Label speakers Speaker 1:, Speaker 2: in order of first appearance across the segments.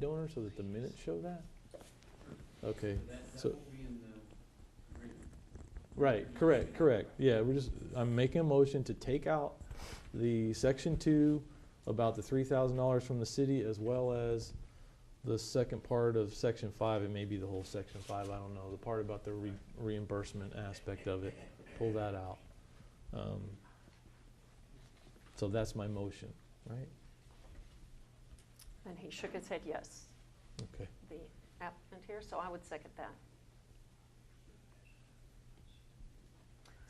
Speaker 1: donor so that the minutes show that? Okay, so, right, correct, correct. Yeah, we're just, I'm making a motion to take out the section two about the three thousand dollars from the city as well as the second part of section five, and maybe the whole section five, I don't know, the part about the re- reimbursement aspect of it. Pull that out. Um, So that's my motion, right?
Speaker 2: And he shook his head yes,
Speaker 1: Okay.
Speaker 2: the applicant here, so I would second that.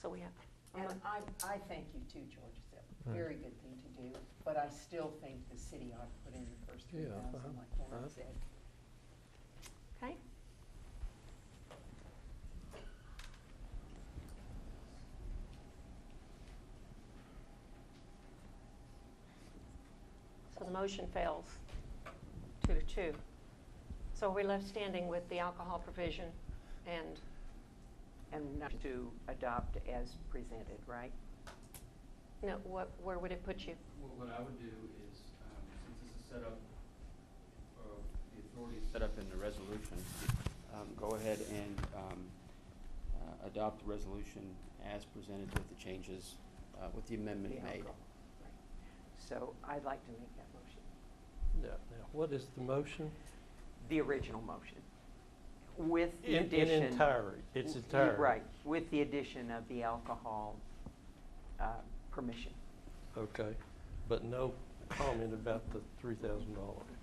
Speaker 2: So we have, a
Speaker 3: And
Speaker 2: mo-
Speaker 3: I, I thank you too, George, it's a
Speaker 4: Hmm.
Speaker 1: Right.
Speaker 3: very good thing to do, but I still think the city ought to put in the first three
Speaker 1: Yeah,
Speaker 3: thousand,
Speaker 1: uh-huh,
Speaker 3: like Warren
Speaker 1: uh-huh.
Speaker 3: said.
Speaker 2: okay? So the motion fails, two to two. So we're left standing with the alcohol provision and
Speaker 5: And not to adopt as presented, right?
Speaker 2: No, what, where would it put you?
Speaker 6: What, what I would do is, um, since this is set up, uh, the authority is set up in the resolution, um, go ahead and, um, uh, adopt the resolution as presented with the changes, uh, with the amendment
Speaker 5: The
Speaker 6: made.
Speaker 5: alcohol, right. So I'd like to make that motion,
Speaker 4: Now, now, what is the motion?
Speaker 5: the original motion, with the
Speaker 4: In-
Speaker 5: addition.
Speaker 4: In entirety, it's
Speaker 5: w-
Speaker 4: entirety.
Speaker 5: Right, with the addition of the alcohol uh, permission.
Speaker 4: Okay, but no comment about the three thousand dollars.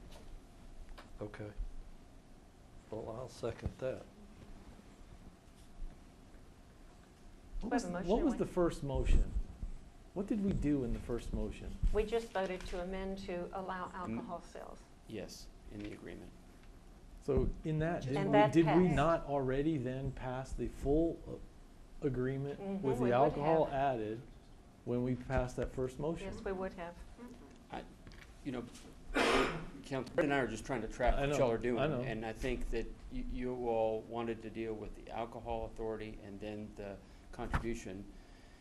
Speaker 4: Okay. Well, I'll second that.
Speaker 1: What
Speaker 2: We have
Speaker 1: was,
Speaker 2: a motion
Speaker 1: what
Speaker 2: and
Speaker 1: was
Speaker 2: one-
Speaker 1: the first motion? What did we do in the first motion?
Speaker 2: We just voted to amend to allow alcohol sales.
Speaker 6: Yes, in the agreement.
Speaker 1: So in that,
Speaker 2: And
Speaker 1: did
Speaker 2: that
Speaker 1: we, did we
Speaker 2: passed.
Speaker 1: not already then pass the full uh, agreement
Speaker 2: Mhm,
Speaker 1: with
Speaker 2: we would
Speaker 1: the alcohol
Speaker 2: have.
Speaker 1: added when we passed that first motion?
Speaker 2: Yes, we would have.
Speaker 6: You know, Council, Brett and I are just trying to track
Speaker 1: I
Speaker 6: what
Speaker 1: know,
Speaker 6: y'all are
Speaker 1: I
Speaker 6: doing.
Speaker 1: know.
Speaker 6: And I think that you, you all wanted to deal with the alcohol authority and then the contribution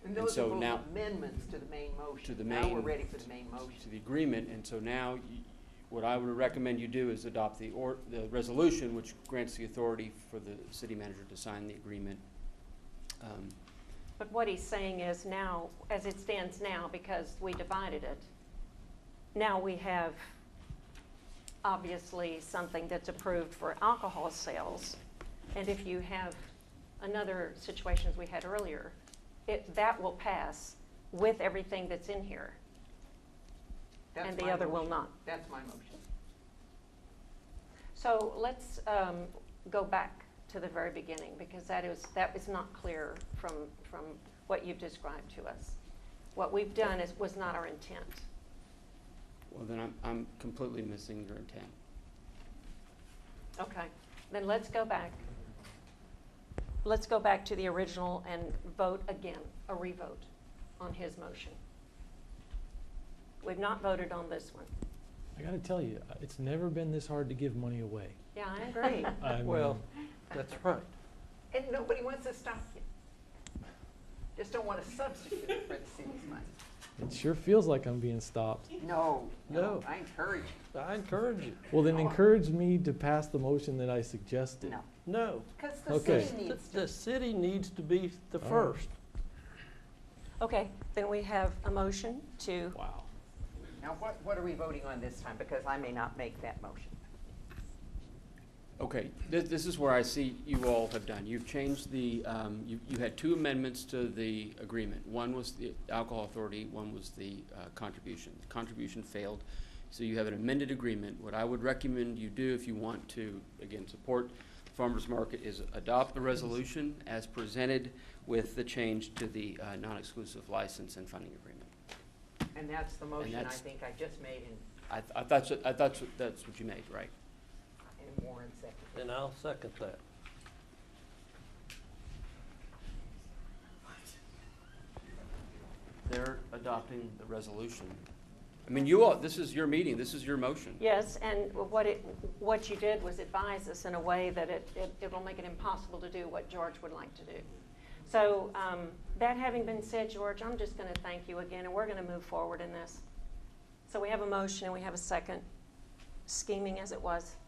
Speaker 6: And
Speaker 5: And those are
Speaker 6: so
Speaker 5: little
Speaker 6: now-
Speaker 5: amendments to the main motion.
Speaker 6: the
Speaker 5: Now we're
Speaker 6: main-
Speaker 5: ready for the main
Speaker 6: to
Speaker 5: motion.
Speaker 6: the agreement, and so now, you- what I would recommend you do is adopt the or, the resolution, which grants the authority for the city manager to sign the agreement. Um,
Speaker 2: But what he's saying is now, as it stands now, because we divided it, now we have obviously something that's approved for alcohol sales. And if you have another situation as we had earlier, it, that will pass with everything that's in here.
Speaker 5: That's
Speaker 2: And the
Speaker 5: my
Speaker 2: other will
Speaker 5: motion.
Speaker 2: not.
Speaker 5: That's my motion.
Speaker 2: So let's um, go back to the very beginning, because that is, that was not clear from, from what you've described to us. What we've done is, was not our intent.
Speaker 6: Well, then I'm, I'm completely missing your intent.
Speaker 2: Okay, then let's go back. Let's go back to the original and vote again, a revote on his motion. We've not voted on this one.
Speaker 1: I gotta tell you, uh, it's never been this hard to give money away.
Speaker 2: Yeah, I agree.
Speaker 1: I
Speaker 4: Well,
Speaker 1: mean,
Speaker 4: that's right.
Speaker 3: And nobody wants to stop you. Just don't want to substitute it for the city's money.
Speaker 1: It sure feels like I'm being stopped.
Speaker 5: No, no,
Speaker 4: No.
Speaker 5: I encourage you.
Speaker 4: I encourage you.
Speaker 1: Well, then encourage me to pass the motion that I suggested.
Speaker 5: No.
Speaker 4: No.
Speaker 3: Because the
Speaker 1: Okay.
Speaker 3: city
Speaker 4: The-
Speaker 3: needs to.
Speaker 4: The city needs to be the
Speaker 1: All right.
Speaker 4: first.
Speaker 2: Okay, then we have a motion to,
Speaker 1: Wow.
Speaker 5: Now, what, what are we voting on this time? Because I may not make that motion.
Speaker 6: Okay, this, this is where I see you all have done. You've changed the, um, you, you had two amendments to the agreement. One was the alcohol authority, one was the, uh, contribution. The Contribution failed, so you have an amended agreement. What I would recommend you do if you want to, again, support the farmer's market is adopt the resolution as presented with the change to the, uh, non-exclusive license and funding agreement.
Speaker 5: And that's the motion I
Speaker 6: that's-
Speaker 5: think I just made and
Speaker 6: I, I thought, so- I thought so- that's what you made, right?
Speaker 5: and Warren seconded.
Speaker 4: And I'll second that.
Speaker 6: They're adopting the resolution. I mean, you all, this is your meeting, this is your motion.
Speaker 2: yes, and what it, what you did was advise us in a way that it, it, it will make it impossible to do what George would like to do. So, um, that having been said, George, I'm just gonna thank you again, and we're gonna move forward in this. So we have a motion and we have a second. scheming as it was